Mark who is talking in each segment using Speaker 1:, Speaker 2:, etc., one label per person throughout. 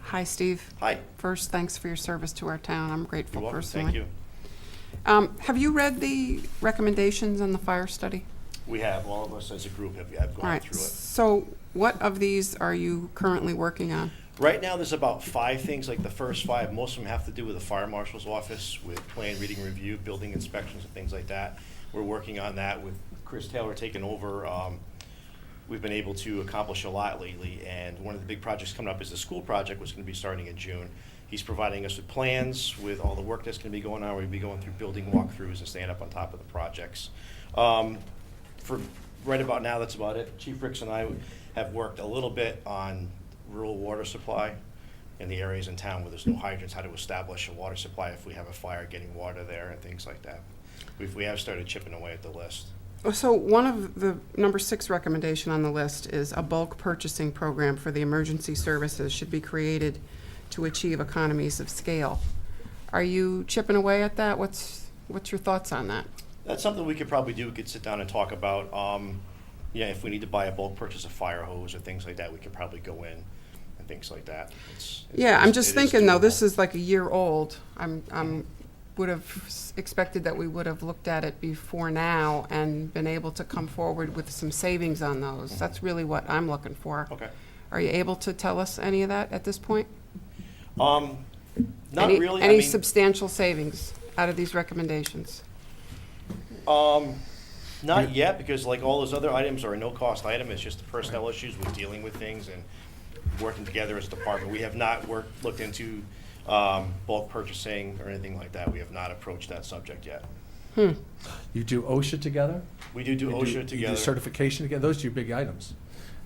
Speaker 1: Hi, Steve.
Speaker 2: Hi.
Speaker 1: First, thanks for your service to our town. I'm
Speaker 2: You're
Speaker 1: grateful
Speaker 2: welcome.
Speaker 1: personally.
Speaker 2: Thank you.
Speaker 1: Um, have you read the recommendations on the fire study?
Speaker 2: We have, all of us as a group have, have
Speaker 1: All
Speaker 2: gone
Speaker 1: right.
Speaker 2: through it.
Speaker 1: So, what of these are you currently working on?
Speaker 2: Right now, there's about five things, like the first five, most of them have to do with the fire marshal's office, with plan reading review, building inspections and things like that. We're working on that with Chris Taylor taking over. Um, we've been able to accomplish a lot lately, and one of the big projects coming up is the school project, which is gonna be starting in June. He's providing us with plans, with all the work that's gonna be going on, we'll be going through building walkthroughs and staying up on top of the projects. Um, for right about now, that's about it. Chief Ricks and I have worked a little bit on rural water supply in the areas in town where there's no hydrants, how to establish a water supply if we have a fire, getting water there and things like that. We've, we have started chipping away at the list.
Speaker 1: Oh, So, one of the number six recommendation on the list is a bulk purchasing program for the emergency services should be created to achieve economies of scale. Are you chipping away at that? What's what's your thoughts on that?
Speaker 2: That's something we could probably do, we could sit down and talk about. Um, yeah, if we need to buy a bulk purchase of fire hose or things like that, we could probably go in and things like that. It's-
Speaker 1: Yeah, I'm just
Speaker 2: it is
Speaker 1: thinking though,
Speaker 2: doable.
Speaker 1: this is like a year old. I'm, I'm, would have s- expected that we would have looked at it before now and been able to come forward with some savings on those. That's really what I'm looking for.
Speaker 2: Mm-hmm. Okay.
Speaker 1: Are you able to tell us any of that at this point?
Speaker 2: Um, not
Speaker 1: Any-
Speaker 2: really, I
Speaker 1: Any
Speaker 2: mean-
Speaker 1: substantial savings out of these recommendations?
Speaker 2: Um, not yet, because like all those other items are a no-cost item, it's just the personnel issues with dealing with things and working together as a department. We have not worked, looked into, um, bulk purchasing or anything like that, we have not approached that subject yet.
Speaker 3: You do OSHA together?
Speaker 2: We do do
Speaker 3: You
Speaker 2: OSHA
Speaker 3: You do
Speaker 2: together,
Speaker 3: certification together, those are your big items.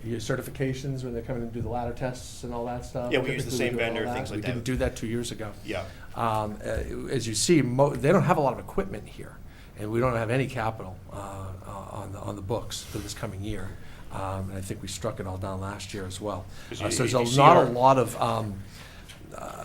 Speaker 3: Your certifications, when they're coming and do the ladder tests and all that stuff.
Speaker 2: Yeah, we use the
Speaker 3: typically we
Speaker 2: same
Speaker 3: do all
Speaker 2: vendor, things like
Speaker 3: We didn't
Speaker 2: that.
Speaker 3: do that two years ago.
Speaker 2: yeah.
Speaker 3: Um, uh, As you see, mo- they don't have a lot of equipment here, and we don't have any capital uh, uh, on the, on the books for this coming year. Um, And I think we struck it all down last year as well.
Speaker 2: 'Cause
Speaker 3: Uh,
Speaker 2: you-
Speaker 3: So
Speaker 2: you
Speaker 3: there's
Speaker 2: see
Speaker 3: a- not
Speaker 2: our-
Speaker 3: a lot of um, uh,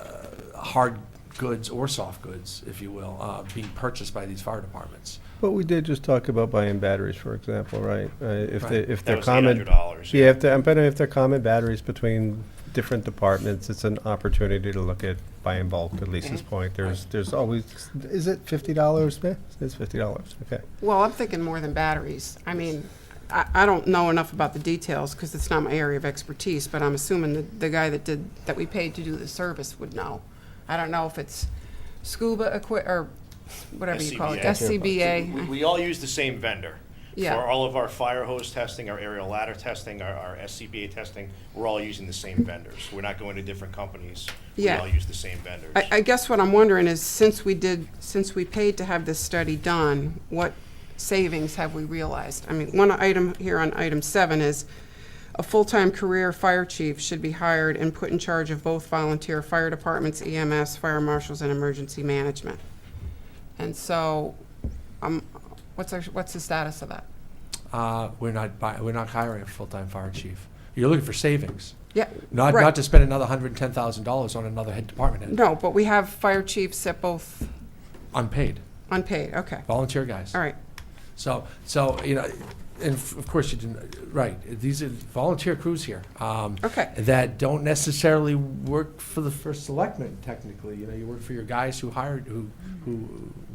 Speaker 3: hard goods or soft goods, if you will, uh, being purchased by these fire departments.
Speaker 4: But we did just talk about buying batteries, for example, right? Uh, If they,
Speaker 3: Right.
Speaker 4: if
Speaker 2: That
Speaker 4: they're
Speaker 2: was eight hundred
Speaker 4: common,
Speaker 2: dollars.
Speaker 4: yeah, if they're, but if they're common batteries between different departments, it's an opportunity to look at buying bulk, at Lisa's
Speaker 2: Mm-hmm.
Speaker 4: point. There's, there's always, is it fifty dollars, It's fifty dollars, okay.
Speaker 1: Well, I'm thinking more than batteries. I mean, I, I don't know enough about the details because it's not my area of expertise, but I'm assuming that the guy that did, that we paid to do the service would know. I don't know if it's scuba equi, or whatever you call it,
Speaker 2: We,
Speaker 1: SCBA.
Speaker 2: we all use the same vendor.
Speaker 1: Yeah.
Speaker 2: For all of our fire hose testing, our aerial ladder testing, our, our SCBA testing, we're all using the same vendors. We're not going to different companies. We
Speaker 1: Yeah.
Speaker 2: all use the same vendors.
Speaker 1: I, I guess what I'm wondering is, since we did, since we paid to have this study done, what savings have we realized? I mean, one item here on item seven is, a full-time career fire chief should be hired and put in charge of both volunteer fire departments, EMS, fire marshals, and emergency management. And so, um, what's our, what's the status of that?
Speaker 3: Uh, We're not, buy- we're not hiring a full-time fire chief. You're looking for savings,
Speaker 1: Yeah,
Speaker 3: not,
Speaker 1: Right.
Speaker 3: not to spend another $110,000 on another head department head,
Speaker 1: no, but we have fire chiefs at both
Speaker 3: unpaid,
Speaker 1: unpaid, okay,
Speaker 3: volunteer guys.
Speaker 1: all right.
Speaker 3: So, so, you know, and f- of course you didn't, right, these are volunteer crews here. um,
Speaker 1: Okay.
Speaker 3: That don't necessarily work for the first selectman technically, you know, you work for your guys who hired, who, who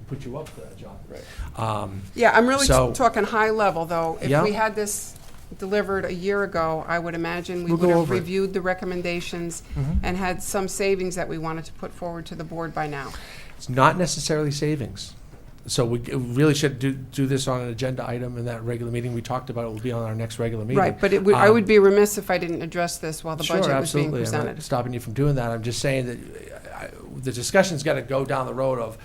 Speaker 3: put you up for that job. Right. Um,
Speaker 1: Yeah, I'm really
Speaker 3: So-
Speaker 1: t- talking high level, though. If
Speaker 3: Yeah.
Speaker 1: we had this delivered a year ago, I would imagine we
Speaker 3: We'll
Speaker 1: would
Speaker 3: go
Speaker 1: have
Speaker 3: over it. Mm-hmm.
Speaker 1: reviewed the recommendations and had some savings that we wanted to put forward to the board by now.
Speaker 3: It's not necessarily savings. So we g- really should do, do this on an agenda item in that regular meeting. We talked about it will be on our next regular meeting.
Speaker 1: Right, but it would, I
Speaker 3: Um,
Speaker 1: would be remiss if I didn't address this while the
Speaker 3: Sure,
Speaker 1: budget was being
Speaker 3: absolutely. I'm not
Speaker 1: presented.
Speaker 3: stopping you from doing that. I'm just saying that uh, I- the discussion's got to go down the road of,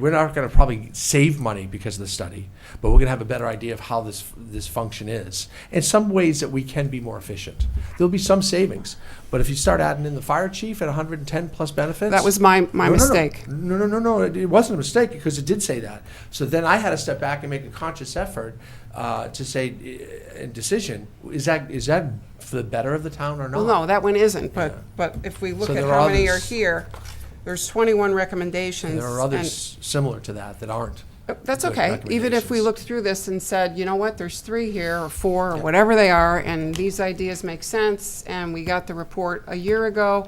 Speaker 3: we're not going to probably save money because of the study, but we're going to have a better idea of how this, this function is. And some ways that we can be more efficient. There'll be some savings, but if you start adding in the fire chief at 110 plus benefits.
Speaker 1: That was my, my
Speaker 3: No, no, no.
Speaker 1: mistake.
Speaker 3: No, no, no, no, it it wasn't a mistake, because it did say that. So then I had to step back and make a conscious effort uh, to say, eh, eh, decision, is that, is that for the better of the town or not?
Speaker 1: Well, no, that one isn't,
Speaker 3: Yeah.
Speaker 1: but, but if we look
Speaker 3: So
Speaker 1: at
Speaker 3: there are
Speaker 1: how many are
Speaker 3: others-
Speaker 1: here, there's 21 recommendations.
Speaker 3: There are
Speaker 1: and-
Speaker 3: others similar to that that aren't.
Speaker 1: Uh, That's
Speaker 3: Like
Speaker 1: okay. Even if we
Speaker 3: recommendations.
Speaker 1: looked through this and said, you know what, there's three here, or four, or whatever they are, and these ideas make sense, and we got the report a year ago,